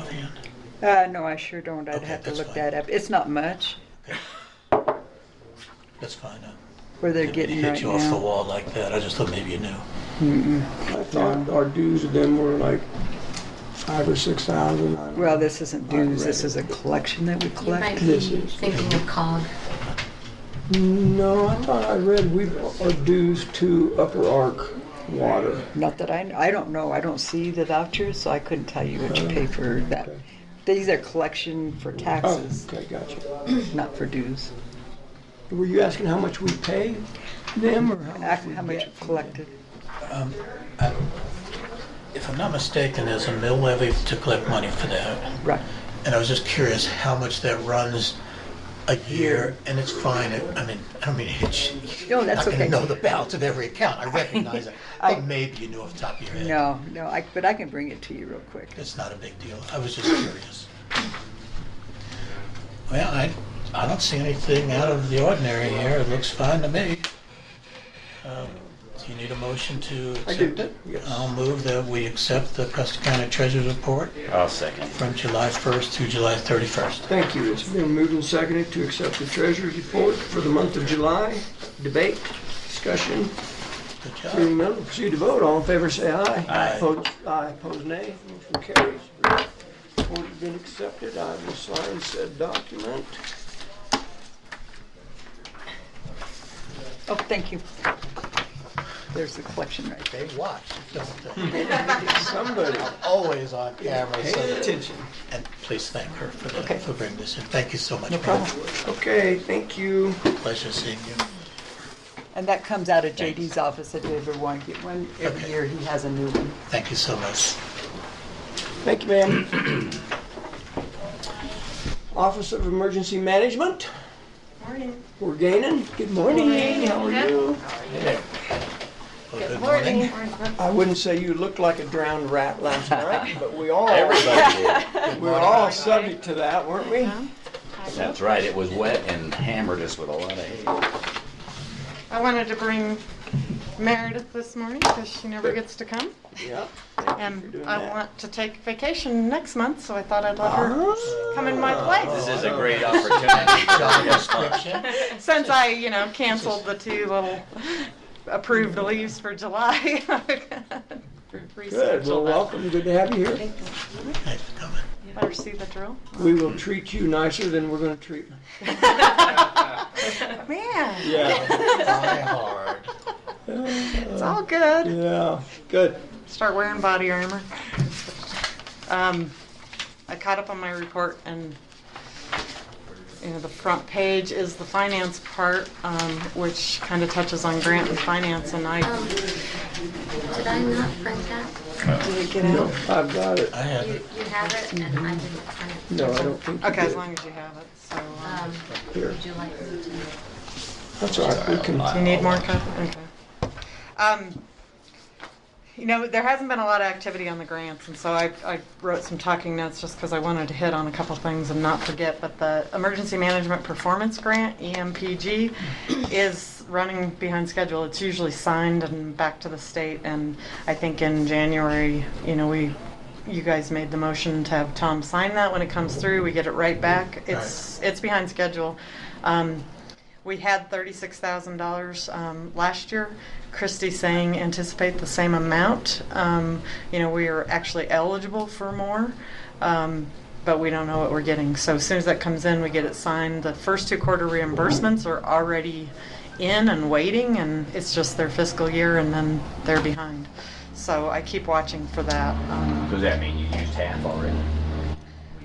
Oh, Uh, no, I sure don't. I'd Okay, have to that's look fine. that up. It's not much That's fine. uh, where they're didn't mean to getting right Hit you off the now. wall like that. I just thought maybe you knew. I thought our dues of them were like five or six thousand. I don't Well, know. this isn't dues. This is a collection that we You might collect. be This is- thinking of COG. No, I thought I read we are dues to Upper Ark Water. Not that I, I don't know. I don't see the vouchers, so I couldn't tell you what you Oh, pay for that. okay. These are collection for Oh, taxes, okay, gotcha. not for dues. Were you asking how much we pay them or how much Ac- we How much get? you collected? If I'm not mistaken, there's a mill levy to collect money for that. Right. And I was just curious how much that runs a year, and it's fine. It- I mean, I don't mean, it's, No, that's I okay. know the balance of every account. I recognize it. I- But maybe you knew off the top of your head. No, no, I, but I can bring it to you real quick. It's not a big deal. I was just curious. Well, I, I don't see anything out of the ordinary here. It looks fine to me. Um, Do you need a motion to I accept do, it? yes. I'll move that we accept the Custer County Treasurer's Report I'll Oh, second. from July 1st to July 31st. Thank you. It's been moved and seconded to accept the treasurer's report for the month of July. Debate, discussion, Good job. Hearing none, proceed to vote. All in favor, say aye. Aye. Opposed, aye. Opposed, nay. Motion carries. Report has been accepted. I will sign said document. Oh, thank you. There's the collection right there. They watch, don't they? Somebody Always on camera. so pay that- attention. And please thank her for Okay. that, for bringing this in. Thank you so much. No ma'am. problem. Okay, thank you. Pleasure seeing you. And that comes out of JD's office if you ever want to get one. Every Okay. year he has a new one. Thank you so much. Thank you, ma'am. Office of Emergency Management. Morning. We're gaining. Good morning. How are you? Well, Good morning. I wouldn't say you looked like a drowned rat last night, but we all, Everybody did. we were all subject to that, weren't we? Uh-huh. That's right. It was wet and hammered us with a lot of hay. I wanted to bring Meredith this morning because she never gets to come. Yeah. And doing I that. want to take vacation next month, so I thought I'd let her Oh. come in my This place. is a great opportunity. Job description. Oh. Since I, you know, canceled the two little approved leaves for July. Good, well, welcome, good to have you here. Thanks for coming. Let her see the drill. We will treat you nicer than we're gonna treat. Man, Yeah. Try hard. it's all good. Yeah, good. start wearing body armor. Um, I caught up on my report and, you know, the front page is the finance part, um, which kind of touches on grant and finance and I, Um, Did I not print that? No, I've got it. I have You it. you have it and I didn't print it. No, I don't think you okay, as did. long as you have it, so. um, Um, Here, Would you like me to? that's all right, we can, Do you need more copy? Okay. Um, you know, there hasn't been a lot of activity on the grants, and so I, I wrote some talking notes just because I wanted to hit on a couple things and not forget. But the Emergency Management Performance Grant, E EMPG, is running behind schedule. It's usually signed and back to the state, and I think in January, you know, we, you guys made the motion to have Tom sign that. When it comes through, we get it right back. It's, it's behind schedule. Um, we had thirty-six thousand dollars um, last year. Christy saying anticipate the same amount. Um, you know, we are actually eligible for more, um, but we don't know what we're getting. So as soon as that comes in, we get it signed. The first two quarter reimbursements are already in and waiting, and it's just their fiscal year, and then they're behind. So I keep watching for that. Um, Does that mean you used half already?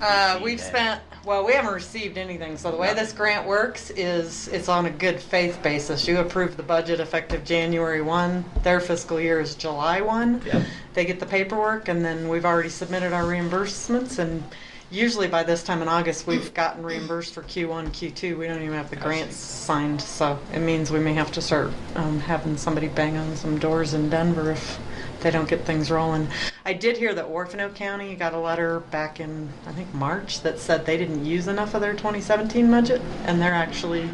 uh, Received we've that? spent, well, we haven't received anything, so the way this grant works is it's on a good faith basis. You approve the budget effective January one, their fiscal year is July one. Yeah. They get the paperwork and then we've already submitted our reimbursements and usually by this time in August, we've gotten reimbursed for Q one, Q two. We don't even have the grants signed, so it means we may have to start, um, having somebody bang on some doors in Denver if they don't get things rolling. I did hear that Orfano County got a letter back in, I think, March that said they didn't use enough of their 2017 budget and they're actually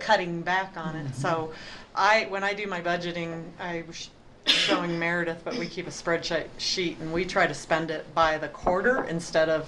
cutting back on it. So I, when I do my budgeting, I was showing Meredith, but we keep a spreadsheet sheet and we try to spend it by the quarter instead of,